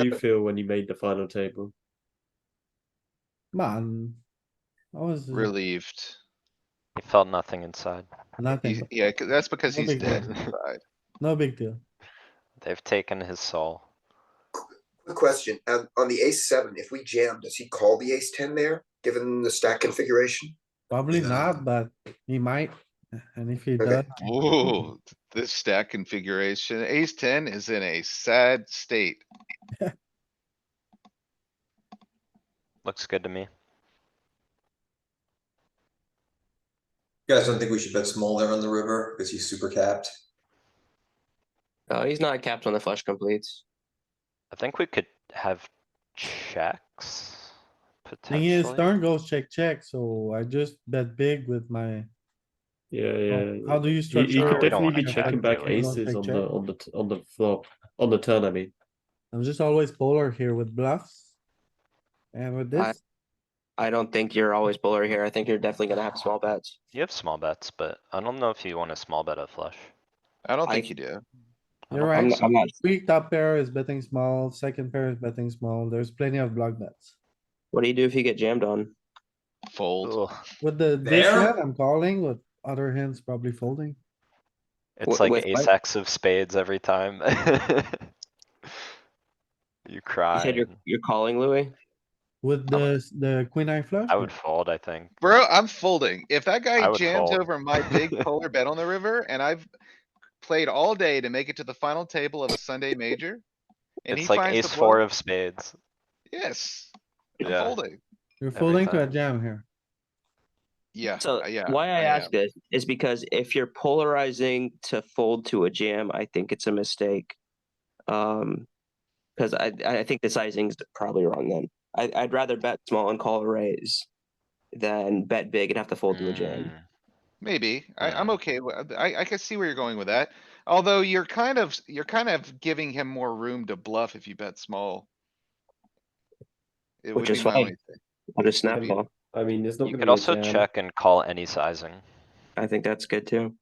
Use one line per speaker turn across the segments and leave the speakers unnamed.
do you feel when you made the final table?
Man. I was
relieved.
He felt nothing inside.
nothing,
He's- Yeah, 'cause that's because
No
he's
big
dead
deal.
inside.
no big deal.
They've taken his soul.
Quick question, um, on the ace seven, if we jam, does he call the ace ten there, given the stack configuration?
Probably
Yeah.
not, but he might. And if he
Okay.
does,
Ooh, this stack configuration, ace ten is in a sad state.
Looks good to me.
You guys don't think we should bet small there on the river because he's super capped?
No, Uh, he's not capped when the flush completes.
I think we could have checks.
thing is,
Potentially.
turn goes check, check, so I just bet big with my,
Yeah, yeah.
Oh, how do you
You,
structure?
you could
we don't
definitely
wanna
be
check.
checking back
You don't
aces
check
on
check?
the on the t- on the flop on the turn. I mean,
I'm just always polar here with bluffs. And with
I-
this,
I don't think you're always polar here. I think you're definitely gonna have small bets.
You have small bets, but I don't know if you want a small bet of flush.
I don't
I-
think you do.
I
You're
don't
right.
I'm,
think
I'm not.
three top pair is betting small, second pair is betting small, there's plenty of block bets.
What do you do if you get jammed on?
Fold.
so. Ugh.
With the, this
There?
hand I'm calling, with other hands probably folding.
It's
Wh-
like
with
ace
what?
X of spades every time. You
You
cry.
said you're
and
you're calling Louis.
With
I'm-
the, the queen eye flush?
I would fold, I think.
Bro, I'm folding. If that
I
guy
would
jams
fold.
over my big polar bet on the river and I've played all day to make it to the final table of a Sunday major. and he
It's like
finds the
ace four
blow-
of spades.
Yes, I'm
Yeah,
folding.
You're
every
folding to a
time.
jam here.
Yeah,
So
uh, yeah.
why I
am.
ask this is because if you're polarizing to fold to a jam, I think it's a mistake. Um, because I I think the sizing's probably wrong. Then I I'd rather bet small and call a raise than bet big and have to fold to a jam.
Mm,
Maybe. I, I'm
Yeah.
okay. with- I, I can see where you're going with that. Although you're kind of, you're kind of giving him more room to bluff if you bet small. It would
Which
be
is
my
fine.
only thing.
I'll just
Yeah, I
snap
mean-
ball.
I mean, there's not.
You
gonna
could
be a
also
jam.
check and call any sizing.
I think that's good too.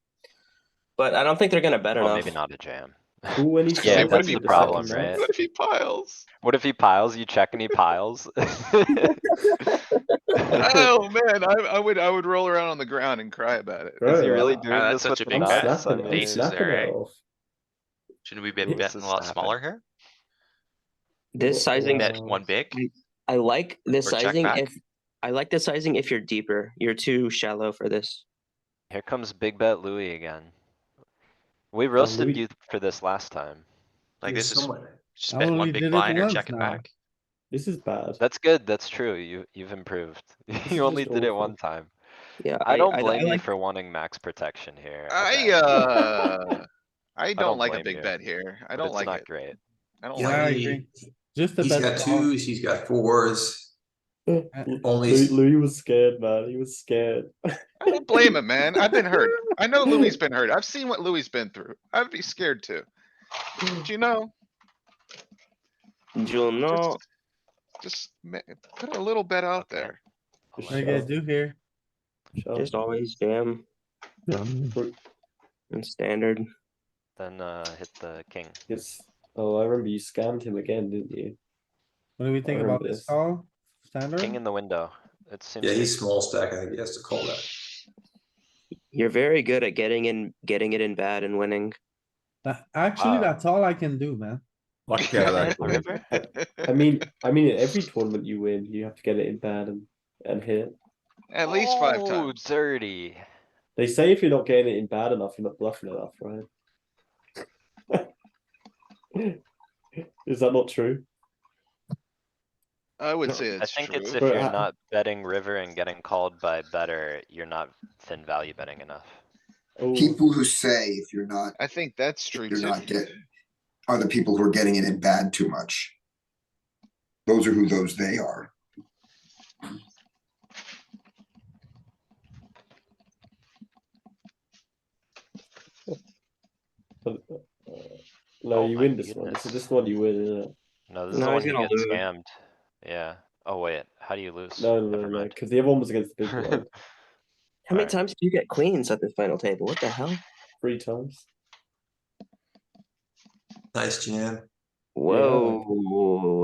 But I don't think they're gonna bet
Well,
enough.
maybe not a jam.
Ooh, any sizing
Yeah,
that's
with
the
second
problem,
round.
right?
What if he piles?
What if he piles? You check and he piles? Is
Oh, man, I, I would, I would roll around on the ground and cry about it.
Bro,
he really
I'm
doing
that's
this
such
with
a
the
big
nuts?
bet.
I
snapping it,
mean,
Aces
snapping
there,
it
eh?
off.
Shouldn't we be
Yes,
betting a
it's
lot
happening.
smaller here?
This sizing,
Yeah.
Bet one big?
I like this
Or check
sizing
back.
if, I like this sizing if you're deeper. You're too shallow for this.
Here comes big bet Louis again. We roasted
Louis-
you for this last time.
Like this is just
I
bet
only
one
did it
big blind or
once
check it
now.
back.
This is bad.
That's good, that's true, you, you've improved.
is
You only
just
did it
awful.
one time.
Yeah,
I don't
I
blame you
like-
for wanting max protection here.
I,
bet,
uh, I
don't
don't like a
blame you,
big bet here. I
but
don't
it's
like
not
it.
Great.
I don't
Yeah, I
like it.
agree. Just the
He's got
best.
twos, he's got fours.
Uh,
Only
Louis, Louis was scared, man. He was scared.
I don't blame him, man. I've been hurt. I know Louis's been hurt. I've seen what Louis's been through. I'd be scared too. But you know?
Jewel, no,
Just- Just ma- put a little bet out
Okay.
there.
Just
What do you guys do here?
Shut
just
up.
always jam and standard.
Then, uh, hit the king.
Yes. Oh, I remember you scammed him again, didn't you?
What do we think about
Horrendous.
this call?
King
Standard?
in the window. It seems.
Yeah,
to-
he's small stack. I think he has to call that.
You're very good at getting in, getting it in bad and winning.
Tha- Actually,
Uh,
that's all I can do, man.
I mean, I mean, in every tournament you win, you have to get it in bad and and hit.
At least five
Oh,
times.
Dirty.
They say if you're not getting it in bad enough, you're not bluffing enough, right? Is that not true?
I would say
I
it's
think it's if
true.
But
you're
I-
not betting river and getting called by better, you're not thin value betting enough.
Oh,
People who say if you're not,
I think that's true
you're
too.
not getting, are the people who are getting it in bad too much. Those are who those they are.
but, uh, no,
Oh
you
my
win this one. This is
goodness.
this one you win, isn't it?
No, this is
No,
the one
he's
you
gonna
get
lose.
scammed. Yeah. Oh wait, how do you lose?
No, no, no,
Never
no,
mind.
because the other one was against the big one
How many
Alright.
times do you get queens at this final table? What the hell?
three times.
Nice jam.
Whoa.